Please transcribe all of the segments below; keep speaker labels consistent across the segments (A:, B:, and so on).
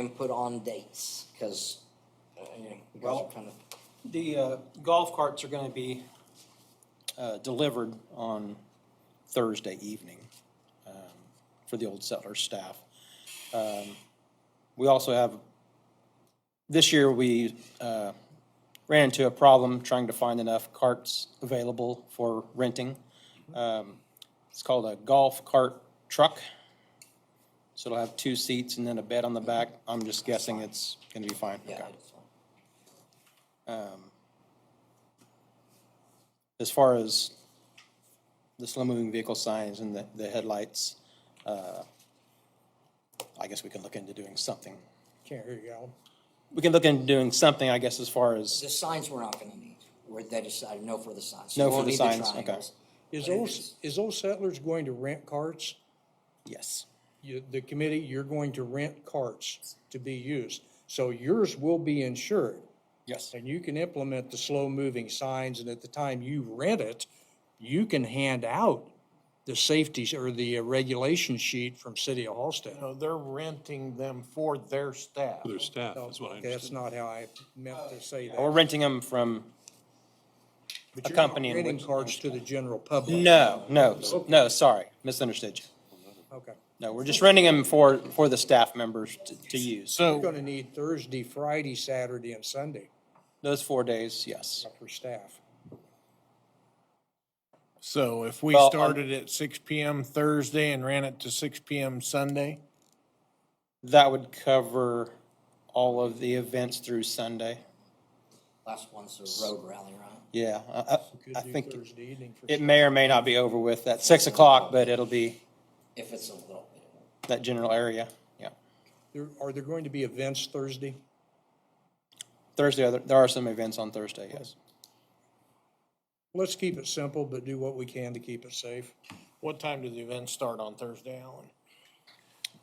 A: and put on dates, because, you know, you guys
B: Well-
A: are kind of,
B: The uh, golf carts are going to be uh, delivered on Thursday evening um, for the Old Settler staff. Um, We also have, this year, we uh, ran into a problem trying to find enough carts available for renting. Um, It's called a golf cart truck. So it'll have two seats and then a bed on the back. I'm just guessing it's going to be fine.
A: yeah.
B: Okay.
A: it's fine.
B: as far as the slow-moving vehicle signs and the, the headlights, uh, I guess we can look into doing something.
C: Can't hear you, Alan.
B: We can look into doing something, I guess, as far as,
A: The signs we're not gonna need, where they decided no for the signs.
B: No
A: You won't
B: for the
A: need
B: signs, okay.
A: triangles.
C: Is
A: But it
C: those,
A: is-
C: is those settlers going to rent carts?
B: yes,
C: You, the committee, you're going to rent carts to be used. So yours will be insured
B: yes,
C: and you can implement the slow-moving signs. And at the time you rent it, you can hand out the safeties or the uh, regulation sheet from City of Halsted.
D: No, they're renting them for their staff.
E: their staff,
C: No,
E: is what I
C: okay, That's not
E: understood.
C: how I meant to say that.
B: we're renting them from
C: But
B: a
C: you're not
B: company in
C: Renting
B: which-
C: carts to the general public.
B: No, no, s- no, sorry, misunderstood you.
C: Okay.
B: No, we're just renting them for, for the staff members to, to use.
C: You're
D: So,
C: gonna need Thursday, Friday, Saturday, and Sunday
B: Those four days, yes.
C: for staff.
D: so if we
B: Well, on-
D: started at six PM Thursday and ran it to six PM Sunday,
B: That would cover all of the events through Sunday.
A: Last one's the road rally, right?
B: Yeah, I, I-
C: Could
B: I
C: do
B: think.
C: Thursday evening for
B: It may or may not be over with at six o'clock, but it'll be
A: If it's a little bit.
B: that general area, yeah.
C: There, are there going to be events Thursday?
B: Thursday, there- there are some events on Thursday, yes.
C: Let's keep it simple, but do what we can to keep it safe.
D: what time do the events start on Thursday, Alan?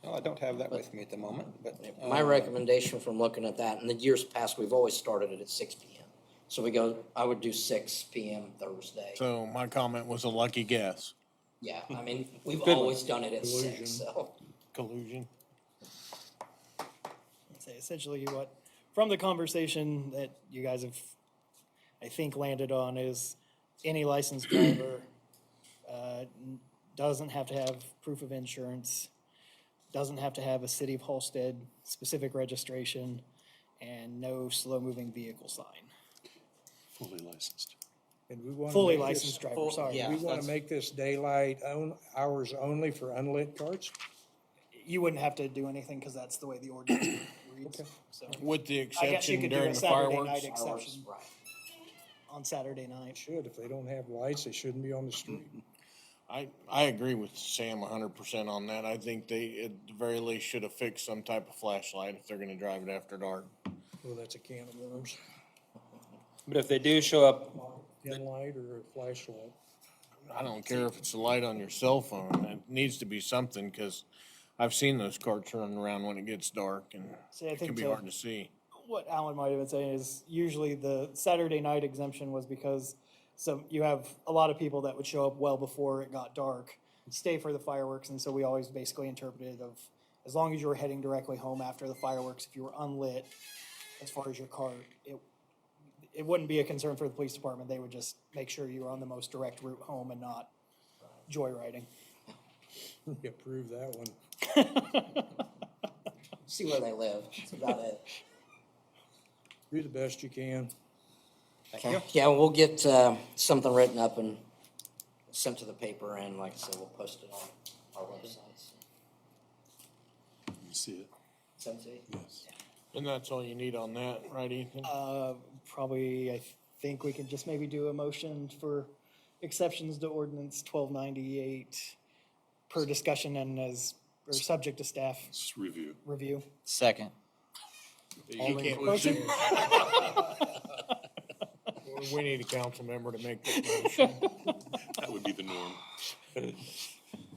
B: Well, I don't have that with me at the moment, but uh,
A: My recommendation from looking at that, in the years past, we've always started it at six P M. So we go, I would do six P M Thursday.
D: So my comment was a lucky guess.
A: Yeah, I mean, we've
B: one.
A: always done it at six, so.
D: Collusion.
F: say essentially what from the conversation that you guys have i think landed on is any licensed driver uh, n- doesn't have to have proof of insurance doesn't have to have a city of holstead specific registration and no slow moving vehicle sign
E: Fully licensed.
C: And we want.
F: fully licensed driver sorry
C: We want to make this daylight own, hours only for unlit carts?
F: you wouldn't have to do anything because that's the way the ordinance reads so
D: With the
F: i guess you
D: exception
F: could do
D: during
F: a
D: the
F: saturday night
D: fireworks.
F: exception
A: Right.
F: on saturday night
C: Should, if they don't have lights, they shouldn't be on the street.
D: I, I agree with Sam hundred percent on that. I think they, at the very least, should have fixed some type of flashlight if they're gonna drive it after dark.
C: Well, that's a can of worms.
B: but if they do show up,
C: Dim light or a flashlight?
D: I don't care if it's the light on your cell phone, it needs to be something, cause I've seen those carts running around when it gets dark and
F: See, I
D: it can
F: think
D: be
F: so.
D: hard to see.
F: what Alan might have been saying is usually the Saturday night exemption was because so you have a lot of people that would show up well before it got dark, stay for the fireworks, and so we always basically interpreted of as long as you were heading directly home after the fireworks, if you were unlit, as far as your car, it it wouldn't be a concern for the police department. They would just make sure you were on the most direct route home and not joyriding.
C: You approve that one.
A: See where they live, that's about it.
C: Do the best you can.
A: Okay. Yeah, we'll get uh, something written up and sent to the paper, and like I said, we'll post it on our websites.
E: You see it?
A: Send to you.
E: Yes.
D: And that's all you need on that, right, Ethan?
F: Uh, probably, I think we can just maybe do a motion for exceptions to ordinance twelve ninety-eight per discussion and as, or subject to staff
E: Just review.
F: review.
G: Second.
D: You can't-
F: Motion?
D: We need a council member to make that motion.
E: That would be the norm.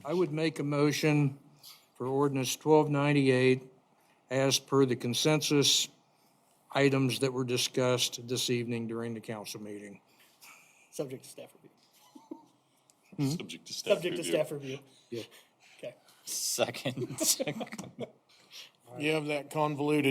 C: I would make a motion for ordinance twelve ninety-eight as per the consensus items that were discussed this evening during the council meeting.
F: Subject to staff review.
E: Subject to staff
F: Subject to
E: review.
F: staff review.
C: Yeah.
F: Okay.
G: Second.
D: You have that convoluted